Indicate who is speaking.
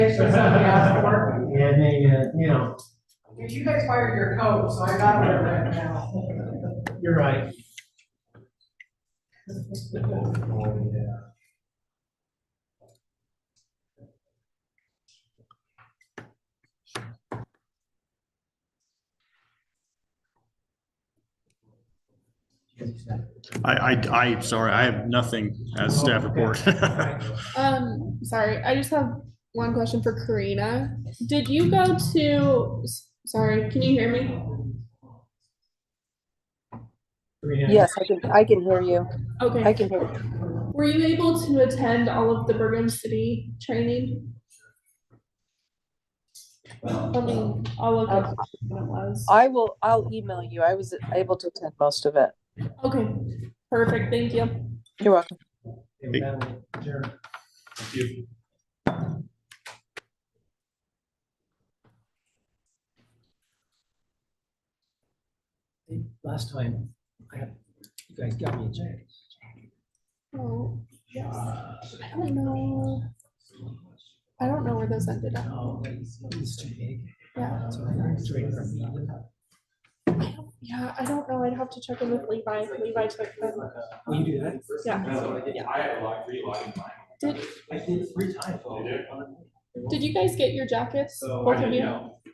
Speaker 1: guys for something else to work with.
Speaker 2: Yeah, they, uh, you know,
Speaker 1: Dude, you guys fired your coach, so I got one right now.
Speaker 2: you're right.
Speaker 3: I, I, I, sorry, I have nothing as staff report.
Speaker 4: Um, sorry, I just have one question for Karina. Did you go to, s- sorry, can you hear me?
Speaker 5: Yes, I can, I can hear you. I
Speaker 4: Okay,
Speaker 5: can hear you.
Speaker 4: were you able to attend all of the Bergen City training? I mean, all of it, what it was.
Speaker 5: I will, I'll email you. I was able to attend most of it.
Speaker 4: Okay, perfect, thank you.
Speaker 5: You're welcome.
Speaker 2: Sure. Last time, I had, you guys got me a jacket.
Speaker 4: Oh,
Speaker 2: Uh,
Speaker 4: I don't know. I don't know where those ended up.
Speaker 2: No, it's too big.
Speaker 4: Yeah,
Speaker 2: So I got it straight from me.
Speaker 4: yeah, I don't know. I'd have to check in with Levi. Levi took them.
Speaker 2: Will Oh, you do that?
Speaker 4: Yeah.
Speaker 6: Yeah. I had a lot, three lot in mine.
Speaker 4: Did,
Speaker 2: I did it three times.
Speaker 6: You did?
Speaker 4: did you guys get your jackets?
Speaker 6: So
Speaker 4: Both
Speaker 6: I
Speaker 4: of
Speaker 6: didn't
Speaker 4: you?
Speaker 6: know.